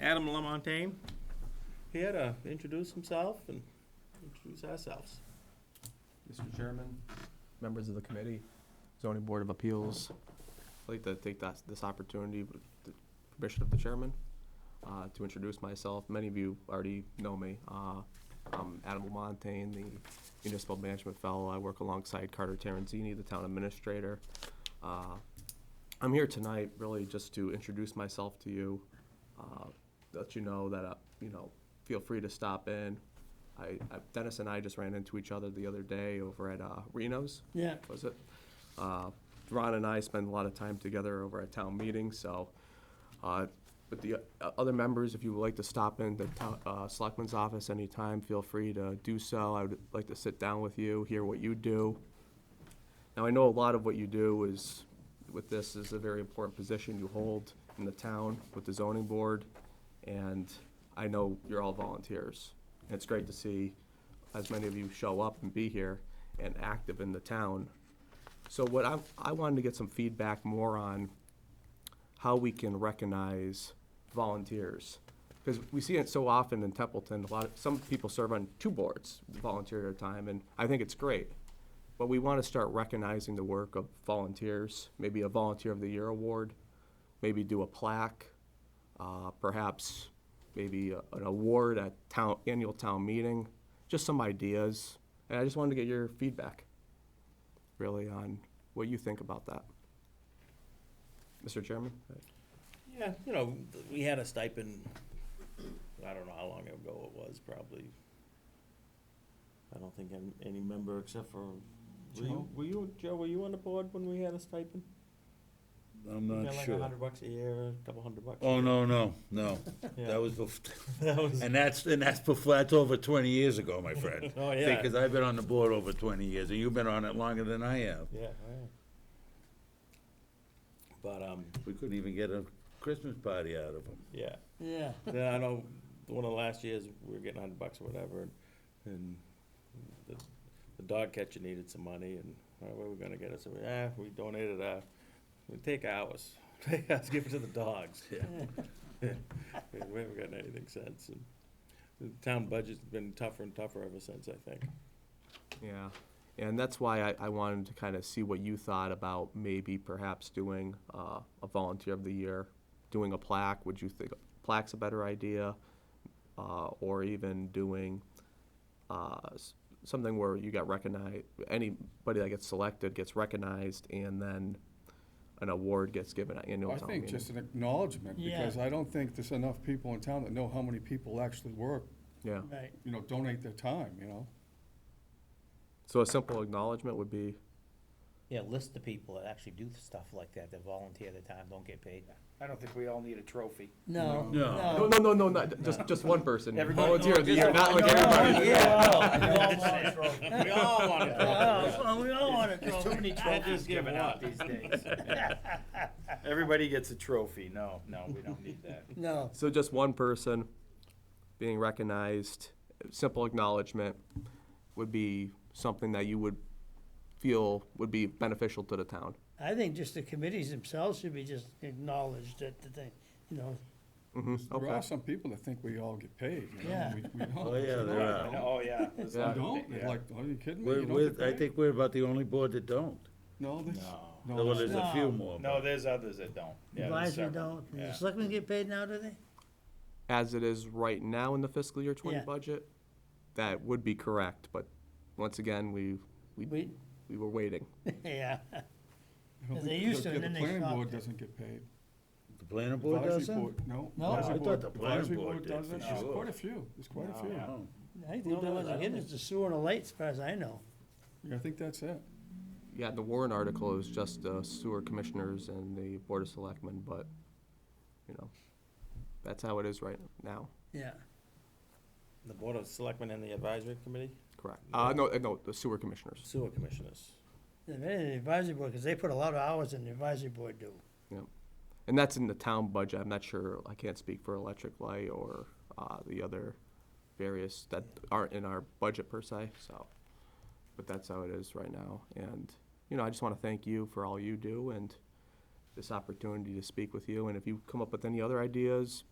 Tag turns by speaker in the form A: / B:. A: Adam Lamontagne here to introduce himself and introduce ourselves.
B: Mr. Chairman, members of the committee, zoning board of appeals, I'd like to take that, this opportunity with the permission of the chairman uh, to introduce myself. Many of you already know me. Uh, I'm Adam Montaigne, the municipal management fellow. I work alongside Carter Terenzini, the town administrator. Uh, I'm here tonight really just to introduce myself to you, uh, let you know that, uh, you know, feel free to stop in. I, I- Dennis and I just ran into each other the other day over at uh, Reno's,
A: Yeah.
B: was it? Uh, Ron and I spend a lot of time together over at town meetings, so, uh, but the uh, other members, if you would like to stop in the town, uh, selectman's office anytime, feel free to do so. I would like to sit down with you, hear what you do. Now, I know a lot of what you do is, with this, is a very important position you hold in the town with the zoning board, and I know you're all volunteers. And It's great to see as many of you show up and be here and active in the town. So what I, I wanted to get some feedback more on how we can recognize volunteers. Because we see it so often in Templeton, a lot of, some people serve on two boards, volunteer at a time, and I think it's great. But we want to start recognizing the work of volunteers, maybe a Volunteer of the Year award, maybe do a plaque, uh, perhaps maybe a- an award at town, annual town meeting, just some ideas. And I just wanted to get your feedback, really, on what you think about that. Mr. Chairman?
A: Yeah, you know, th- we had a stipend, I don't know how long ago it was, probably. I don't think any, any member except for, were you,
B: Joe?
A: were you, Joe, were you on the board when we had a stipend?
C: I'm
A: We
C: not
A: got Like a
C: sure.
A: hundred bucks a year, a couple hundred bucks. a
C: Oh,
A: year.
C: no, no, no.
A: Yeah.
C: That was, bef-
A: That was,
C: and that's, and that's before, that's over twenty years ago, my friend.
A: oh, yeah, yeah,
C: Because I've been on the board over twenty years, and you've been on it longer than I have.
A: oh, yeah. But, um,
C: We couldn't even get a Christmas party out of them.
A: Yeah. Yeah. Then I know one of the last years we were getting hundred bucks or whatever, and, and the, the dog catcher needed some money, and uh, where were we gonna get it? So we, ah, we donated our, we take ours, take ours, give it to the dogs. Yeah. we haven't gotten anything since. And the town budget's been tougher and tougher ever since. I think.
B: Yeah, and that's why I, I wanted to kind of see what you thought about maybe perhaps doing uh, a volunteer of the year, doing a plaque. Would you think plaque's a better idea, uh, or even doing uh, s- something where you got recognized? Anybody that gets selected gets recognized, and then an award gets given at annual
D: I
B: town
D: think
B: meeting.
D: just an acknowledgement, because I don't think there's enough people in town that know how many people actually work,
B: yeah.
E: Right,
D: you know, donate their time, you know?
B: So a simple acknowledgement would be
E: yeah, list the people that actually do stuff like that, that volunteer their time, don't get paid.
F: I don't think we all need a trophy.
E: No,
C: No.
B: no, no, no, no, not, just just one person.
F: Everybody-
B: volunteer of
F: just
B: the year,
F: one-
B: not like
F: no, no, no,
E: Oh,
B: everybody.
A: we all want
E: That's why we all want
F: There's too many trophies given out these days. Everybody gets a trophy. No, no, we don't need that.
E: No.
B: So just one person being recognized, simple acknowledgement would be something that you would feel would be beneficial to the town.
G: I think just the committees themselves should be just acknowledged at the thing, you know,
B: hmm
D: There
B: okay.
D: are some people that think we all get paid, you know?
G: Yeah.
D: We- we don't.
C: Oh, yeah, there are.
F: Oh, yeah. there's a lot
D: We
F: of
D: don't,
F: thi-
D: They're
F: yeah.
D: like, are you kidding me?
C: We're,
D: You don't
C: we're,
D: get
C: I
D: paid?
C: think we're about the only board that don't.
D: No, there's,
F: No.
D: no,
C: Well,
D: there's-
C: there's a few more.
F: No, there's others that don't. Yeah, there's
G: advisory
F: several.
G: don't,
F: Yeah.
G: the selectmen get paid now, do they?
B: As it is right now in the fiscal year twenty
G: Yeah.
B: budget, that would be correct, but once again, we, we,
G: We-
B: we were waiting.
G: Yeah,
D: I don't
G: They
D: think-
G: used to,
D: the-
G: and then
D: The
G: they
D: planning
G: stopped
D: board
G: it.
D: doesn't get paid.
C: The planning board
D: Advisory
C: doesn't?
D: board, no.
G: No.
D: Advisory
C: I thought
D: board-
C: the planning
D: advisory
C: board did,
D: doesn't.
C: for
D: There's
C: sure.
D: quite a few, there's quite a few.
C: No.
G: I think the only ones that get is the sewer and the lights, as far as I know.
D: Yeah, I think that's it.
B: Yeah, the Warren article is just the sewer commissioners and the board of selectmen, but, you know, that's how it is right now,
G: Yeah,
A: The board of selectmen and the advisory committee,
B: correct? Uh, no, uh, no, the sewer commissioners.
A: sewer commissioners.
G: and then the advisory board, because they put a lot of hours in the advisory board do.
B: And that's in the town budget. I'm not sure, I can't speak for electric light or uh, the other various that aren't in our budget per se, so. But that's how it is right now. And, you know, I just want to thank you for all you do and this opportunity to speak with you. And if you come up with any other ideas,